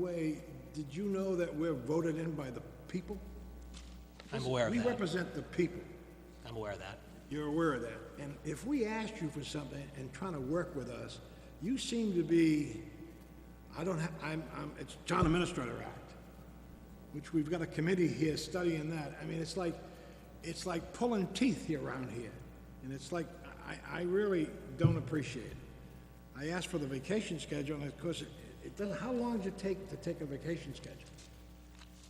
Way, did you know that we're voted in by the people? I'm aware of We that. represent the people. I'm aware of that. You're aware of that. And if we asked you for something and trying to work with us, you seem to be, I don't have, I'm, I'm, it's Town Administrator Act, which we've got a committee here studying that. I mean, it's like, it's like pulling teeth here around here. And it's like, I, I really don't appreciate it. I asked for the vacation schedule and of course, it, it doesn't, how long does it take to take a vacation schedule?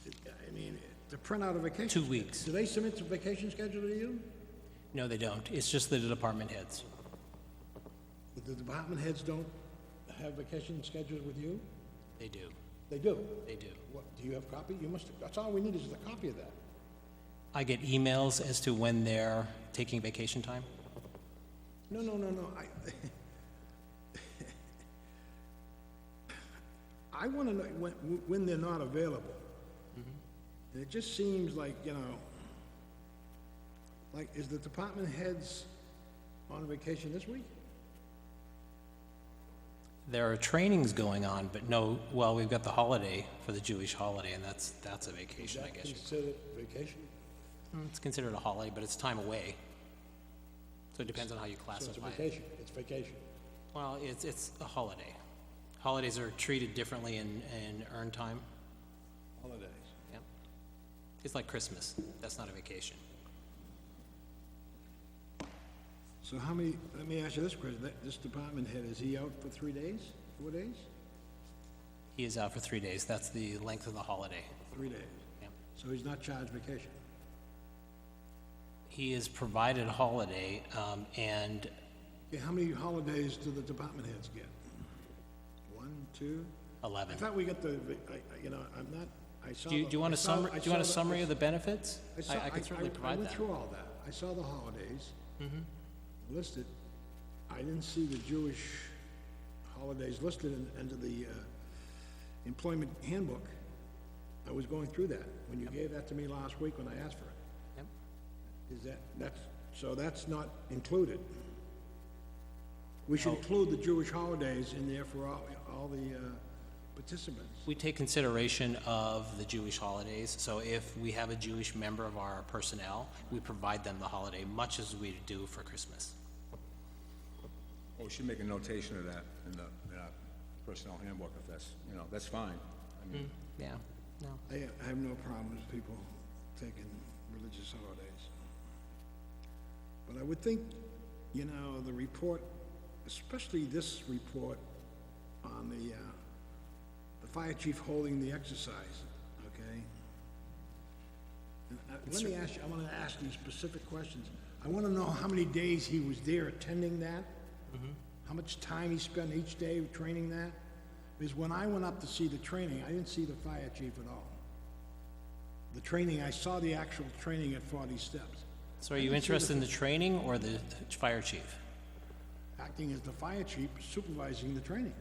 It- I mean, to print out a vacation. Two schedule. weeks. Do they submit the vacation schedule to you? No, they don't. It's just the department heads. But The department heads don't have vacation schedules with you? They do. They do. They do. What, do you have copy? You must, that's all we need is the copy of that. I get emails as to when they're taking vacation time. No, no, no, no, I... I wanna know when, when they're not available. And it just seems like, you know, like, is the department heads on vacation this week? There are trainings going on, but no, well, we've got the holiday for the Jewish holiday, and that's, that's a vacation, I That guess. you- Considered vacation? Mm, It's considered a holiday, but it's time away. So it depends on how you So it's a classify it. vacation, it's vacation. Well, it's, it's a holiday. Holidays are treated differently in, in earned time. Holidays. Yep. It's like Christmas. That's not a vacation. So how many, let me ask you this question, that, this department head, is he out for three days, four days? He is out for three days. That's the length of the holiday. Three days. Yep. So he's not charged vacation? He is provided holiday, um, and Okay, how many holidays do the department heads get? One, two? I eleven. thought we got the, I, I, you know, I'm not, I saw. Do you, the- do you want I a saw- summary, I do you want a saw the- summary of the benefits? saw- I, I can certainly I provide went that. Mm-hmm. through all that. I saw the holidays listed. I didn't see the Jewish holidays listed in, under the uh, employment handbook. I was going through that when you gave that to me last week when I asked for it. Yep. Is that, that's, so that's not included. We Oh. should include the Jewish holidays in there for all, all the uh, participants. We take consideration of the Jewish holidays, so if we have a Jewish member of our personnel, we provide them the holiday, much as we do for Christmas. Well, we should Oh, make a notation of that in the, in our personnel handbook, if that's, you know, that's fine. I mean, Yeah, no. I I have no problem with people taking religious holidays. But I would think, you know, the report, especially this report on the, uh, the fire chief holding the exercise, okay? And I- Let me ask you, I want to ask you specific questions. I want to know how many days he was there attending that? How much time he spent each day training that? Because when I went up to see the training, I didn't see the fire chief at all. The training, I saw the actual training at 40 steps, So are you interested in the training or the fire chief? acting as the fire chief supervising the training.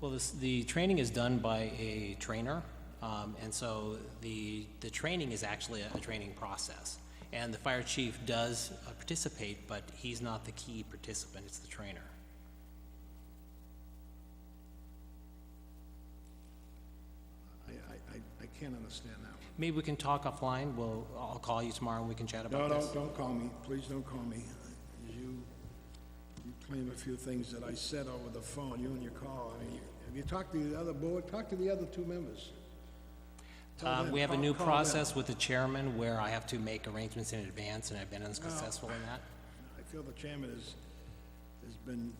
Well, this, the training is done by a trainer, um, and so the, the training is actually a, a training process. And the fire chief does uh, participate, but he's not the key participant, it's the trainer. I, I, I- I can't understand that one. Maybe we can talk offline, we'll, I'll call you tomorrow and we can chat about No, this. don't, don't call me, please don't call me. You, you claim a few things that I said over the phone, you and your call. I mean, you- have you talked to the other board, talk to the other two members? Tell Um, them, we have a call- new call them. process with the chairman where I have to make arrangements in advance, and I've been unsuccessful in that. I feel the chairman has, has been,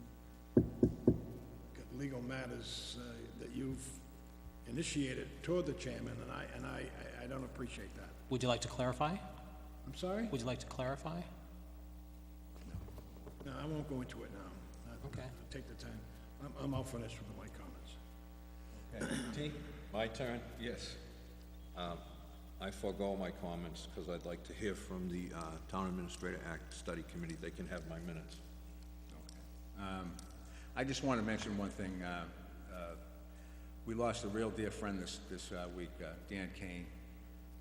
got legal matters uh, that you've initiated toward the chairman, and I, and I, I- I don't appreciate that. Would you like to clarify? I'm sorry? Would you like to clarify? No, I won't go into it now. I- Okay. I'll Take the time. I'm, I'm all finished with my comments. My turn. Yes. I forego my comments because I'd like to hear from the uh, Town Administrator Act Study Committee. They can have my minutes. Um, I just want to mention one thing. uh, uh, We lost a real dear friend this, this uh, week, uh, Dan Kane.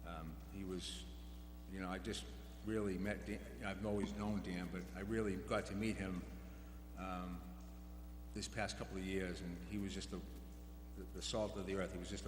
Um, He was, you know, I just really met, Dan- I've always known Dan, but I really got to meet him um, this past couple of years, and he was just a- the the salt of the earth. He was just a